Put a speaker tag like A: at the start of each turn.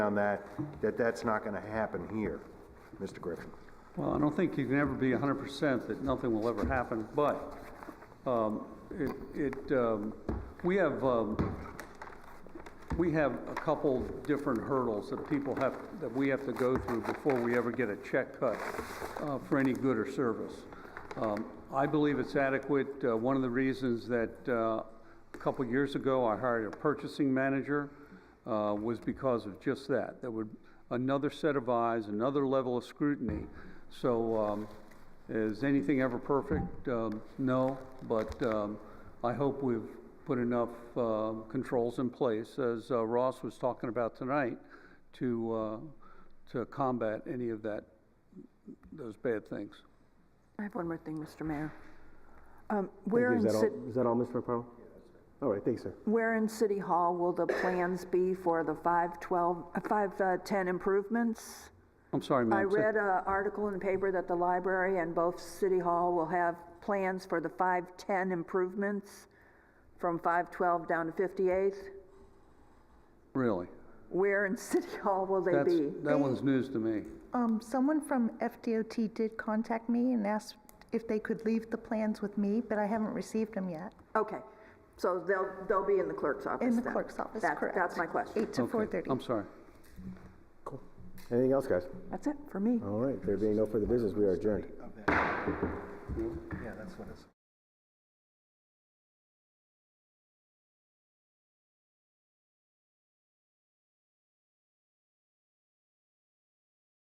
A: on that, that that's not going to happen here, Mr. Griffin.
B: Well, I don't think you can ever be hundred percent that nothing will ever happen, but, um, it, it, um, we have, um, we have a couple different hurdles that people have, that we have to go through before we ever get a check cut, uh, for any good or service. Um, I believe it's adequate. Uh, one of the reasons that, uh, a couple years ago, I hired a purchasing manager, uh, was because of just that. There would, another set of eyes, another level of scrutiny. So, um, is anything ever perfect? Um, no, but, um, I hope we've put enough, uh, controls in place, as uh, Ross was talking about tonight, to, uh, to combat any of that, those bad things.
C: I have one more thing, Mr. Mayor. Um, Where in,
D: Is that all,
C: Ci-
D: is that all, Mr. McFarland? All right, thanks, sir.
C: where in City Hall will the plans be for the 512, uh, 510 improvements?
B: I'm sorry, ma'am.
C: I
B: say-
C: read an article in the paper that the library and both City Hall will have plans for the 510 improvements from 512 down to 58th.
B: Really?
C: Where in City Hall will they
B: That's,
C: be?
B: that one's news to me.
E: Um, someone from FDOT did contact me and asked if they could leave the plans with me, but I haven't received them yet.
C: Okay, so they'll, they'll be in the clerk's office
E: In the
C: then.
E: clerk's office,
C: That-
E: correct.
C: That's my question.
E: Eight to
B: Okay,
E: four thirty.
B: I'm sorry.
D: Anything else, guys?
C: That's it for me.
D: All right, there being no further business, we are adjourned.